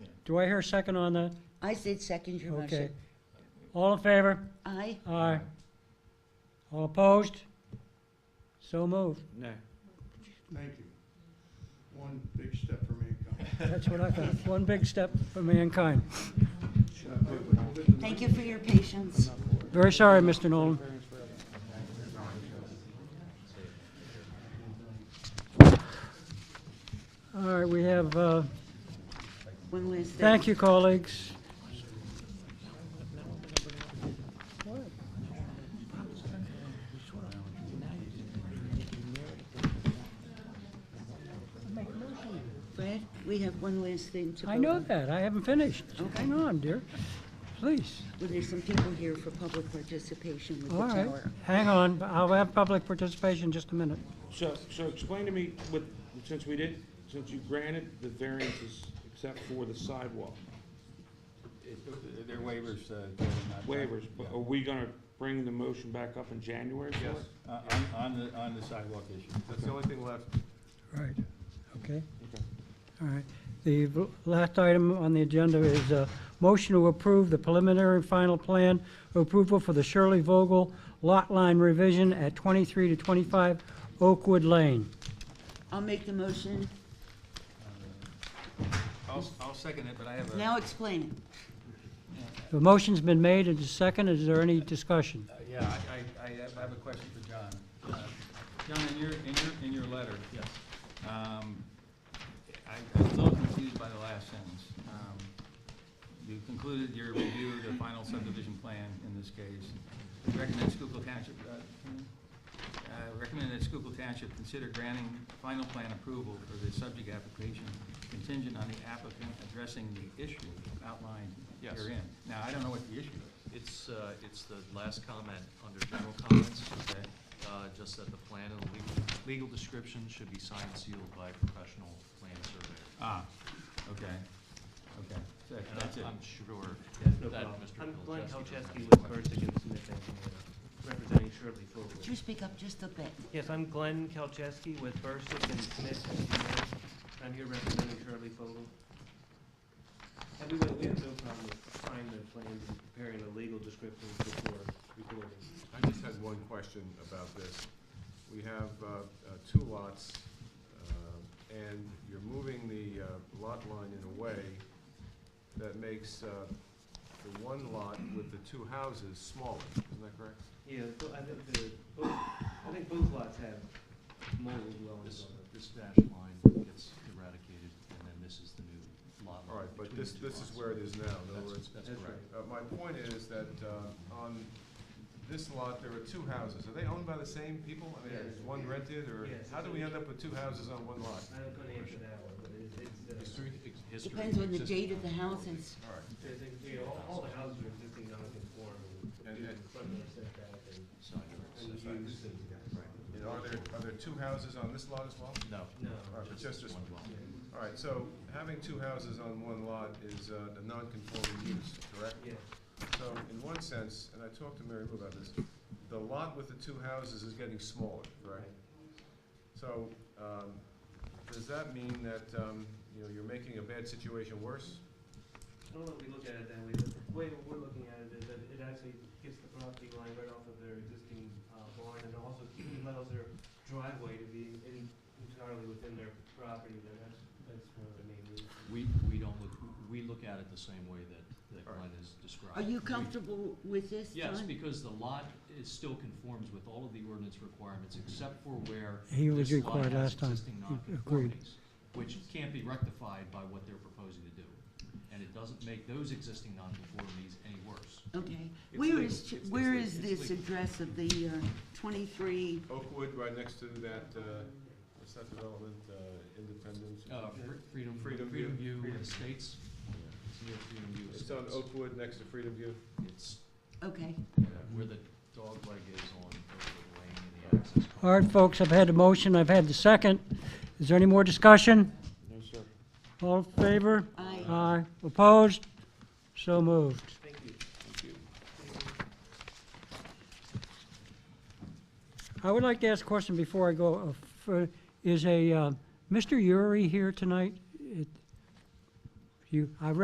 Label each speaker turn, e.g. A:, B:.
A: Do I hear a second on that?
B: I said second your
A: Okay.
B: motion.
A: All in favor?
B: Aye.
A: Aye. All opposed? So moved.
C: No.
D: Thank you. One big step for mankind.
A: That's what I thought. One big step for mankind.
B: Thank you for your patience.
A: Very sorry, Mr. Nolan. All right, we have, uh,
B: One last thing.
A: thank you, colleagues.
B: Brad, we have one last thing to vote
A: I know
B: on.
A: that. I haven't finished.
B: Okay.
A: Hang on, dear. Please.
B: Well, there's some people here for public participation with the
A: All right.
B: tower.
A: Hang on. I'll have public participation in just a minute.
C: So, so explain to me, with, since we did, since you granted the variances except for the sidewalk
E: It- Their waivers, uh, they're not-
C: waivers, but oh. are we gonna bring the motion back up in January for
E: Yes,
C: it?
E: on, Uh, on- on the, on the sidewalk issue.
F: That's the only thing left.
A: Right, okay.
C: Okay.
A: All right. The v- last item on the agenda is a motion to approve the preliminary and final plan approval for the Shirley Vogel lot line revision at 23 to 25 Oakwood Lane.
B: I'll make the motion.
E: I'll, I'll second it, but I have
B: Now explain it.
A: The motion's been made and is seconded. Is there any discussion?
E: Uh, Yeah, I, I, I have- I have a question for John. Uh, John, in your, in your, in your letter. Yes. Um, I, I'm a little confused by the last sentence. Um, You concluded your review of the final subdivision plan in this case. Recommend Schuylkill Township, uh, uh, recommend that Schuylkill Township consider granting final plan approval for the subject application contingent on the applicant addressing the issue outlined
F: Yes.
E: herein. Now, I don't know what the issue is.
F: It's, uh, it's the last comment under general comments,
E: Okay.
F: uh, just that the plan and the legal, legal description should be signed and sealed by a professional plan surveyor.
E: Ah, okay, okay, So
F: And
E: that's it.
F: I'm- I'm sure
G: No
F: that
G: problem.
F: Mr.
G: I'm Glenn
F: Bilczewski.
G: Kolczewski with Burlington Smith Engineering, representing Shirley
B: Could you
G: Fogel.
B: speak up just a bit?
G: Yes, I'm Glenn Kolczewski with Burlington Smith Engineering. I'm here representing Shirley Fogel. Everyone, we have no problem with signing the plans and preparing a legal description before recording.
H: I just had one question about this. We have uh, uh, two lots, uh, and you're moving the uh, lot line in a way that makes uh, the one lot with the two houses smaller, isn't that correct?
G: Yeah, but I think the, both- I think both lots have multiple dwellings
F: This,
G: on them.
F: this dashed line gets eradicated, and then this is the new lot.
H: All right, but
F: between
H: this,
F: the two
H: this is
F: lots.
H: where it is now, in other
F: That's,
H: words.
F: that's
G: That's
F: correct.
G: right.
H: uh, My point is that uh, on this lot, there are two houses. Are they owned by the same people? I mean,
G: Yes.
H: is one rented, or
G: Yes.
H: how do we end up with two houses on one lot?
G: I'm gonna answer that one, but it's, it's, uh,
F: History, history.
B: Depends on the
F: existing-
B: date of the houses.
H: All right.
G: there's, a- you know, all- all the houses are existing non-conforming,
H: And-
G: due to
H: and-
G: front yard setback and-
F: Side yard
G: and
F: setback.
G: use and-
H: And are there, are there two houses on this lot as well?
F: No.
G: No.
H: All right, but just this one.
F: lot.
G: Yeah,
H: All right, so having two houses on one lot is uh, a non-conforming use, correct?
G: yeah.
H: So in one sense, and I talked to Mary Lou about this, the lot with the two houses is getting smaller, correct? So um, does that mean that, um, you know, you're making a bad situation worse?
G: I don't know if we look at it that way, but the way we're looking at it is that it actually gets the property line right off of their existing uh, barn and also allows their driveway to be in- entirely within their property there. That's, that's one of the main reasons.
F: We, we don't look, we look at it the same way that, that
H: All right.
F: Glenn has described.
B: Are you
F: We-
B: comfortable with this, John?
F: Yes, because the lot is, still conforms with all of the ordinance requirements except for where
A: He was
F: this lot
A: required last
F: has
A: time.
F: existing
A: He agreed.
F: nonconformities, which can't be rectified by what they're proposing to do. And it doesn't make those existing nonconformities any worse.
B: Okay.
F: It's
B: Where
F: legal.
B: is,
F: It's-
B: where
F: it's
B: is
F: legal. It's
B: this
F: legal.
B: address of the uh, 23?
H: Oakwood, right next to that, uh, what's that development, uh, Independence?
F: Uh, Fre- Freedom,
H: Freedom
F: Freedom
H: View.
F: View
H: Freedom.
F: Estates, it's near Freedom View
H: It's on
F: Estates.
H: Oakwood, next to Freedom View.
F: It's
B: Okay.
F: uh, where the dog leg is on Oakwood Lane and the access.
A: All right, folks, I've had the motion, I've had the second. Is there any more discussion?
C: No, sir.
A: All in favor?
B: Aye.
A: Aye. Opposed? So moved.
G: Thank you.
A: I would like to ask a question before I go. uh, for- Is a, uh, Mr. Yuri here tonight? It- You, I read